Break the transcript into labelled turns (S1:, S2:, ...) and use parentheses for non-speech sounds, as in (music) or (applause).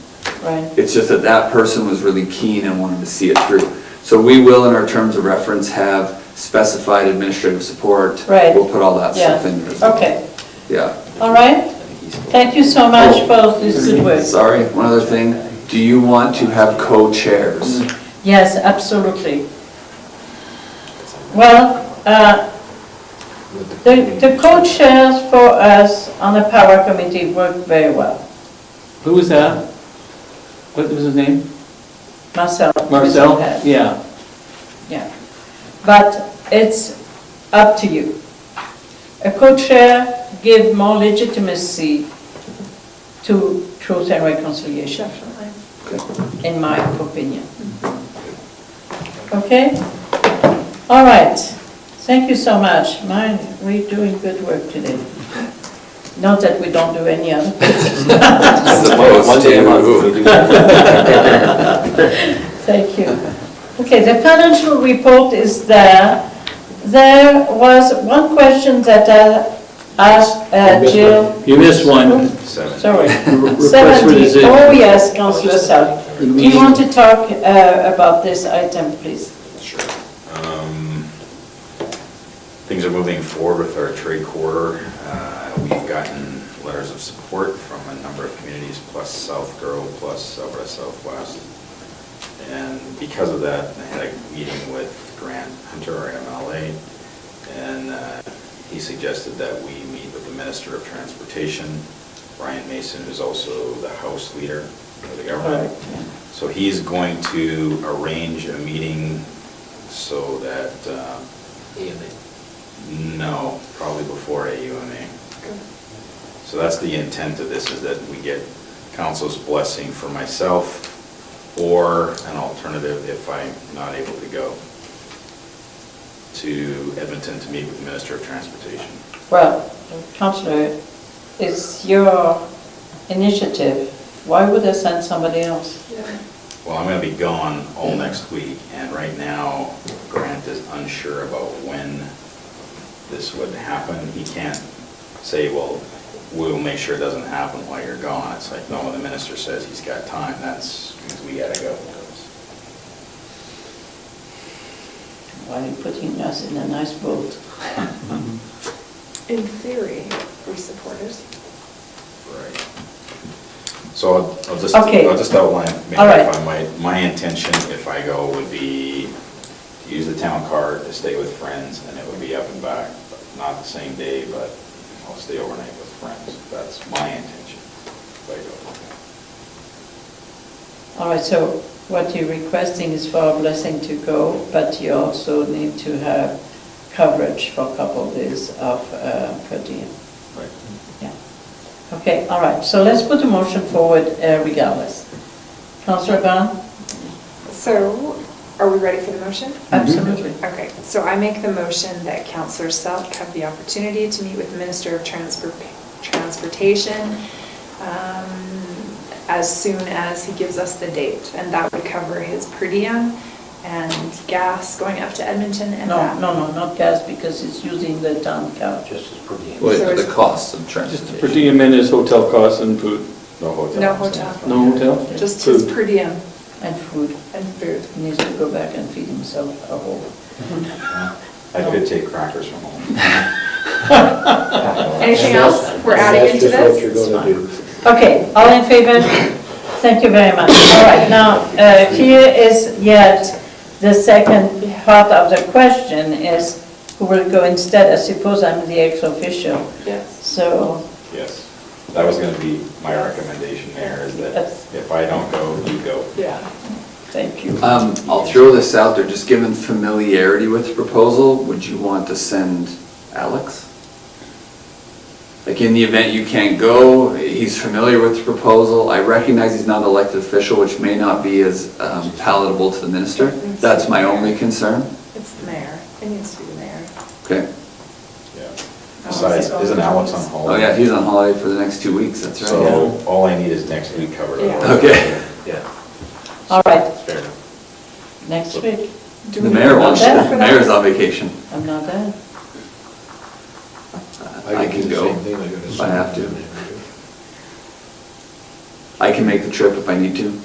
S1: Right.
S2: It's just that that person was really keen and wanted to see it through. So we will, in our terms of reference, have specified administrative support.
S1: Right.
S2: We'll put all that stuff in there. as well.
S1: Yeah, okay.
S2: Yeah. Oh.
S1: All right, thank you so much for this good work.
S2: Sorry, one other thing. Do you want to have co-chairs?
S1: Yes, absolutely. Well, uh, the the co-chairs for us on the power committee work very well.
S3: Who was that? What was his name?
S1: Marcel. Mr.
S3: Marcel?
S1: Head,
S3: Yeah.
S1: Yeah. But it's up to you. A co-chair give more legitimacy to truth and reconciliation,
S2: Okay.
S1: in my opinion. Okay? All right. Thank you so much. Mine, we're doing good work today. Not that we don't do any other.
S4: One day a month. we do that.
S1: Thank you. Okay, the financial report is there. There was one question that I asked uh, Jill,
S3: You missed one.
S4: Seven.
S3: (laughs)
S1: sorry.
S3: Request for
S1: 70,
S3: decision.
S1: oh yes, Councillor Sal. Do
S3: The
S1: you
S3: meeting-
S1: want to talk uh, about this item, please?
S4: Sure. Um, Things are moving forward with our trade quarter. Uh, We've gotten letters of support from a number of communities, plus South Girl, plus Alberta Southwest. And because of that, I had a meeting with Grant Hunter, our MLA, and uh, he suggested that we meet with the Minister of Transportation, Brian Mason, who's also the House Leader of the government. So he's going to arrange a meeting so that, uh, no, probably before AUMA. So that's the intent of this, is that we get council's blessing for myself or an alternative if I'm not able to go to Edmonton to meet with the Minister of Transportation.
S1: Well, councillor, it's your initiative. Why would I send somebody else?
S4: Well, I'm going to be gone all next week, and right now Grant is unsure about when this would happen. He can't say, well, we'll make sure it doesn't happen while you're gone. It's like, no, the minister says he's got time, that's, we got to go.
S1: Why are you putting us in a nice boat?
S5: In theory, we're supporters.
S4: Right. So I'll I'll just,
S1: Okay.
S4: I'll just outline, maybe if
S1: All right.
S4: I might, my intention if I go would be to use the town card to stay with friends, and it would be up and back, not the same day, but I'll stay overnight with friends. That's my intention if I go.
S1: All right, so what you're requesting is for a blessing to go, but you also need to have coverage for a couple of days of uh, per diem.
S4: Right.
S1: Yeah. Okay, all right, so let's put a motion forward uh, regardless. Councillor Barnes?
S5: So, are we ready for the motion?
S1: Mm-hmm. Absolutely.
S5: Okay, so I make the motion that Counselor Selk have the opportunity to meet with the Minister of Transpor- Transportation um, as soon as he gives us the date, and that would cover his per diem and gas going up to Edmonton and
S1: No,
S5: that.
S1: no, no, not gas because it's using the town couch.
S6: just as per diem.
S2: Well,
S5: So
S2: the
S5: it's-
S2: cost of
S3: Just
S2: transportation.
S3: the per diem and his hotel costs and food.
S4: No hotel.
S5: No
S4: I'm saying.
S5: hotel.
S3: No hotel?
S5: Just his
S3: Food.
S5: per diem
S1: And food,
S5: and food.
S1: he needs to go back and feed himself a whole.
S4: I could take crackers from home.
S5: Anything else we're adding into
S6: That's
S5: this?
S6: just what you're gonna do.
S1: Okay, all in favor? Thank you very much. All right, now, uh, here is yet the second part of the question is, who will go instead? I suppose I'm the ex officio,
S5: Yes.
S1: so,
S4: Yes. That was going to be my recommendation there, is that
S1: Yes.
S4: if I don't go, you go.
S5: Yeah.
S1: thank you.
S2: Um, I'll throw this out there, just given familiarity with the proposal, would you want to send Alex? Like in the event you can't go, he's familiar with the proposal, I recognize he's not an elected official, which may not be as um, palatable to the minister. That's my only concern,
S5: It's the mayor. It needs to be the mayor.
S2: okay?
S4: Yeah. Besides, isn't Alex on
S2: Oh
S4: holiday?
S2: yeah, he's on holiday for the next two weeks, that's right.
S4: So all I need is next week covered.
S5: Yeah.
S2: Okay.
S4: Yeah.
S1: All right,
S4: Fair enough.
S1: next week,
S5: Do
S2: The
S5: we
S2: mayor
S5: vote
S2: wants,
S1: that
S2: the
S5: for
S2: mayor's on vacation.
S1: I'm not there.
S2: I
S6: do
S2: can
S6: the
S2: go
S6: same thing, I gotta
S2: if I
S6: send
S2: have to.
S6: it in there.
S2: I can make the trip if I need to.